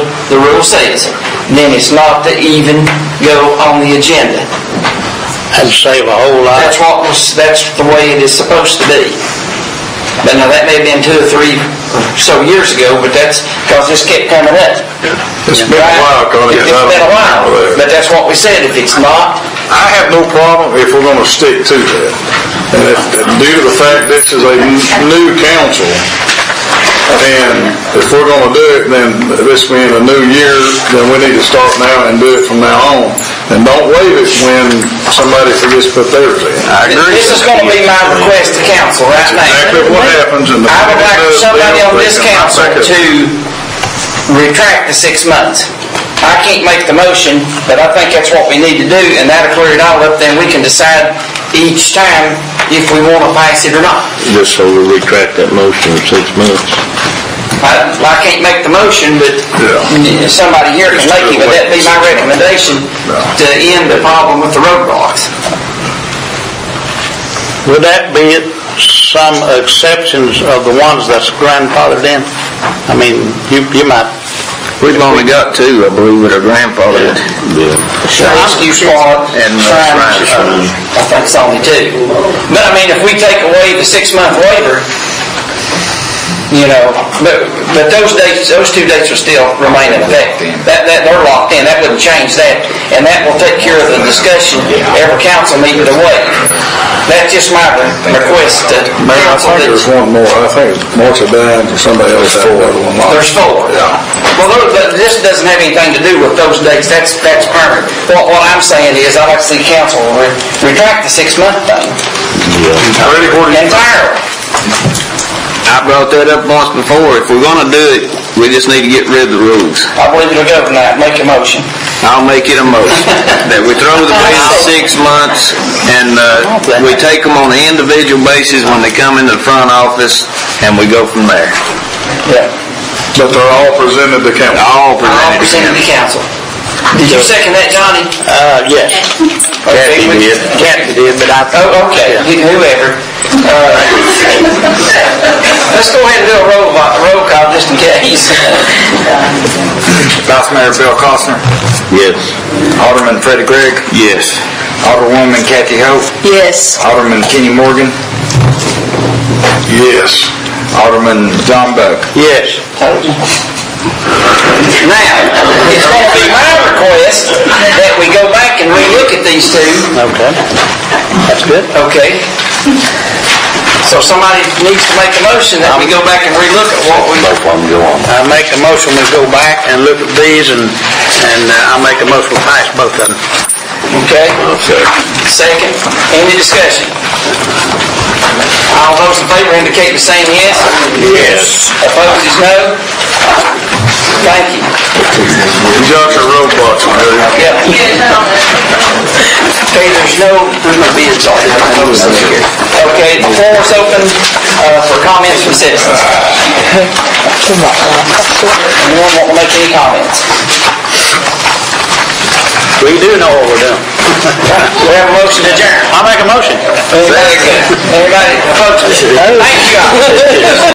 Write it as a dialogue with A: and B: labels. A: the rule says, then it's not to even go on the agenda.
B: That'd save a whole lot.
A: That's what was, that's the way it is supposed to be. But now, that may have been two or three or so years ago, but that's, because this kept coming up.
C: It's been a while, Connie.
A: It's
C: 'cause I don't
A: been a while,
C: remember that.
A: but that's what we said, if it's not,
C: I have no problem if we're gonna stick to that. And if- Due to the fact this is a new council, and if we're gonna do it, then this being a new year, then we need to start now and do it from now on. And don't waive it when somebody forgets to put theirs in. I
A: this is gonna be my request to council right now.
C: Exactly what happens in the.
A: I would like somebody on this council to retract the six months. I can't make the motion, but I think that's what we need to do, and that'll clear it all up, then we can decide each time if we want to pass it or not.
B: Just so we retract that motion in six months.
A: I I can't make the motion, but
C: Yeah.
A: somebody here can make it, but that'd be my recommendation to end the problem with the roadblocks.
B: Would that be some exceptions of the ones that's grandfathered in? I mean, you, you might. We've only got two, I believe, that are grandfathered.
A: Rescue squad,
B: And, uh,
A: crime,
B: crime squad.
A: uh, I think it's only two. But I mean, if we take away the six-month waiver, you know, but, but those dates, those two dates will still remain in effect. That, that, they're locked in, that wouldn't change that, and that will take care of the discussion every council meeting to waive. That's just my request to
C: Mayor, I
A: council
C: think
A: that
C: there's one more. I think Marcia Dines or somebody else had another one. like-
A: There's four. Well, those- but this doesn't have anything to do with those dates, that's, that's permanent. What, what I'm saying is, I'd like to see council re- retract the six-month thing
C: Freddie, what do you think?
A: entirely.
B: I brought that up once before. If we're gonna do it, we just need to get rid of the rules.
A: I believe it'll go tonight, make a motion.
B: I'll make it a motion, that we throw the ban of six months, and uh, we take them on an individual basis when they come into the front office, and we go from there.
A: Yeah.
C: But they're all presented to council.
B: All
A: I'll
B: presented to
A: present it to
B: council.
A: council. Did you second that, Johnny?
B: Uh, yes.
A: Kathy did.
B: Kathy did, but I...
A: Oh, okay, whoever. Uh, Let's go ahead and do a roll, vo- roll call, just in case.
D: Vice Mayor Bill Costner,
B: Yes.
D: Alderman Freddie Gregg,
B: Yes.
D: Alderwoman Kathy Hope,
E: Yes.
D: Alderman Kenny Morgan,
C: Yes.
D: Alderman John Buck.
B: Yes.
A: Now, it's going to be my request that we go back and relook at these two
B: Okay. That's good.
A: Okay. So somebody needs to make a motion that we go back and relook at what we,
B: problem, go on. I make a motion, we go back and look at these, and, and uh, I make a motion, we pass both of them.
A: okay? Second, any discussion? All those in favor indicate the same yes.
B: Yes.
A: Opposed is no. Thank you.
C: You got your roadblocks, Mayor.
A: Yep. Okay, there's no, there's no bids on it. Okay, the floor is open uh, for comments from citizens. Anyone want to make any comments?
B: We do know what we're doing.
A: We have a motion to adjourn.
B: I make a motion.
A: Everybody, folks, thank you all.